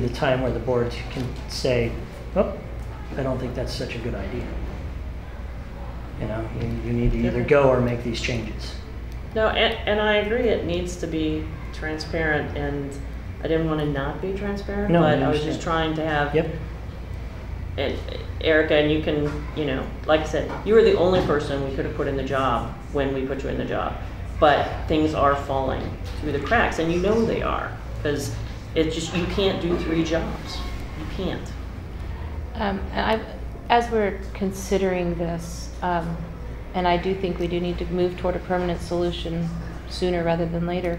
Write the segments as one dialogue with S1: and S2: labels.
S1: be the time where the board can say, oh, I don't think that's such a good idea. You know, you, you need to either go or make these changes.
S2: No, and, and I agree, it needs to be transparent, and I didn't want to not be transparent,
S1: No, I
S2: but I was just
S1: understand.
S2: trying to have.
S1: Yep,
S2: And Erica, and you can, you know, like I said, you were the only person we could have put in the job when we put you in the job. But things are falling through the cracks, and you know they are, because it's just, you can't do three jobs. You can't.
S3: Um, I, as we're considering this, um, and I do think we do need to move toward a permanent solution sooner rather than later,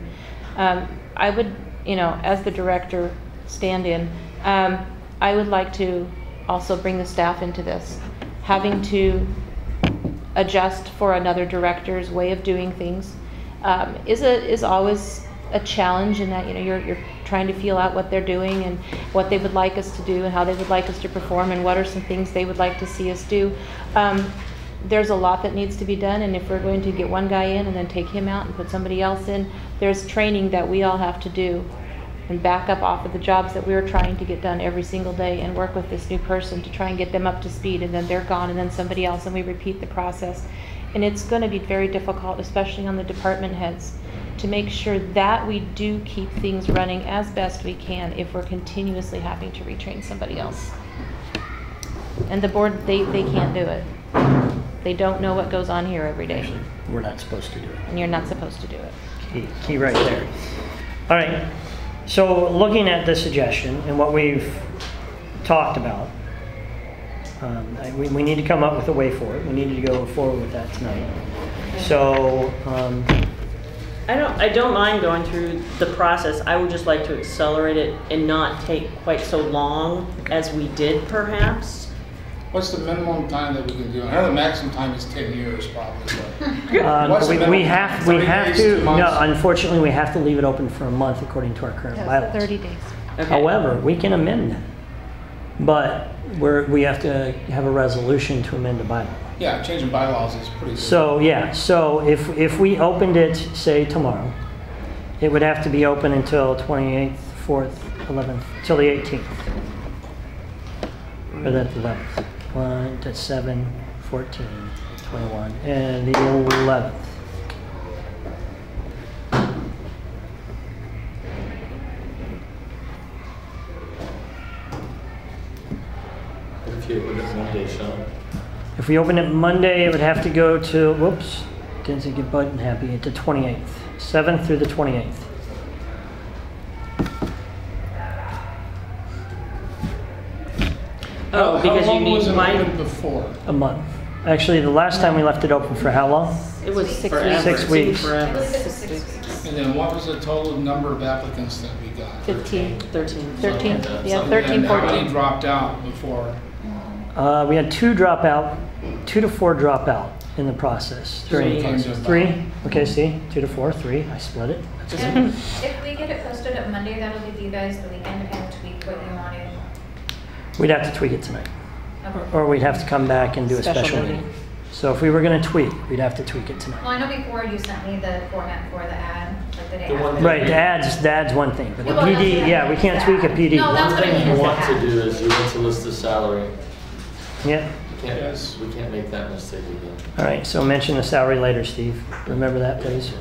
S3: um, I would, you know, as the director stand-in, um, I would like to also bring the staff into this. Having to adjust for another director's way of doing things um, is a is always a challenge in that you know you're you're trying to feel out what they're doing and what they would like us to do and how they would like us to perform and what are some things they would like to see us do. Um, there's a lot that needs to be done, and if we're going to get one guy in and then take him out and put somebody else in, there's training that we all have to do and back up off of the jobs that we were trying to get done every single day and work with this new person to try and get them up to speed and then they're gone and then somebody else and we repeat the process. And it's going to be very difficult, especially on the department heads, to make sure that we do keep things running as best we can if we're continuously having to retrain somebody else. And the board, they, they can't do it. They don't know what goes on here every day
S1: actually, we're not supposed to do it.
S3: and you're not supposed to do it.
S1: Key, key right there. All right, so looking at the suggestion and what we've talked about, um, I- we, we need to come up with a way for it. We need to go forward with that tonight. So, um,
S2: I don't, I don't mind going through the process, I would just like to accelerate it and not take quite so long as we did perhaps.
S4: What's the minimum time that we can do? I know the maximum time is ten years probably, but
S1: Um,
S4: What's
S1: we,
S4: the
S1: we
S4: minimum?
S1: have, we
S4: Thirty
S1: have
S4: days,
S1: to, no,
S4: two months?
S1: unfortunately, we have to leave it open for a month according to our current bylaws.
S3: Thirty days.
S2: Okay.
S1: However, we can amend that. But we're, we have to have a resolution to amend the bylaw.
S4: yeah, changing bylaws is pretty. good.
S1: So, yeah, so if, if we opened it, say, tomorrow, it would have to be open until 28th, 4th, 11th, till the 18th. Or the 11th. 1 to 7, 14, 21, and the 11th.
S5: If you open it Monday, Sean.
S1: If we open it Monday, it would have to go to, whoops, didn't think it button happy, to 28th, 7th through the 28th.
S4: How-
S2: Oh, because
S4: how
S2: you
S4: long was
S2: need
S4: it open
S2: my,
S4: Before,
S1: A month. Actually, the last time we left it open for how long?
S2: it was
S3: Six
S2: forever.
S3: weeks. Six
S2: It seemed
S1: weeks.
S2: Forever.
S4: and then what was the total number of applicants that we got?
S3: Fifteen.
S2: Thirteen.
S3: Thirteen,
S5: Something like that.
S3: yeah,
S4: And
S3: thirteen,
S4: How many
S3: fourteen.
S4: dropped out before?
S1: Uh, we had two drop out, two to four drop out in the process. during the
S2: Three.
S1: process. Three? Okay, see, two to four, three, I split it.
S6: And If we get it posted up Monday, that'll give you guys the weekend to kind of tweak what you want to.
S1: We'd have to tweak it tonight,
S6: Well,
S1: or we'd have to come back and do a
S3: Special
S1: special
S3: meeting.
S1: meeting. So if we were gonna tweak, we'd have to tweak it tonight.
S6: I know before you sent me the format for the ad, like the day
S5: The one
S6: after.
S5: that-
S1: Right, the ads, the ads one thing, but the
S6: Well, that's
S1: PD,
S6: what I
S1: yeah, we can't tweak a PD.
S6: No, that's
S5: One
S6: what I mean
S5: thing
S6: is
S5: you
S6: the
S5: want to
S6: app.
S5: do is you want to list the salary.
S1: Yeah.
S5: We can't-
S4: Yes.
S5: We can't make that mistake again.
S1: All right, so mention the salary later, Steve. Remember that, please.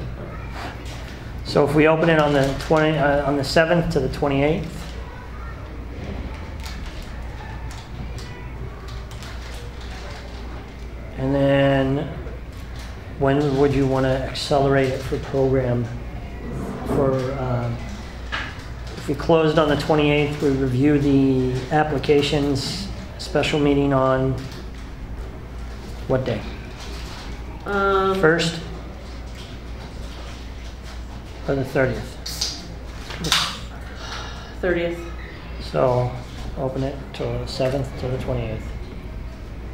S1: So if we open it on the 20, uh, on the 7th to the 28th, and then when would you want to accelerate it for program? For, um, if we closed on the 28th, we review the applications, special meeting on what day?
S2: Um,
S1: First? Or the 30th?
S2: 30th.
S1: So open it till the 7th to the 28th.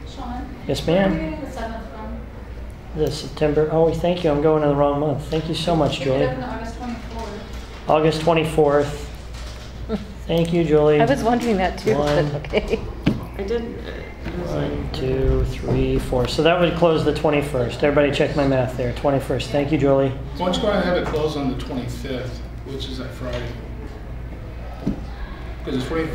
S6: Sean?
S1: Yes,
S6: where are
S1: ma'am?
S6: you getting the seventh from?
S1: The September, oh, thank you, I'm going to the wrong month. Thank you so much,
S6: Pick it
S1: Julie.
S6: up on August 24th.
S1: August 24th. Thank you, Julie.
S3: I was wondering that too, but
S1: One.
S3: okay.
S2: I did. uh,
S1: One, two, three, four. So that would close the 21st. Everybody check my math there, 21st. Thank you, Julie.
S4: Why don't you go ahead and have it closed on the twenty-fifth, which is that Friday? Because it's forty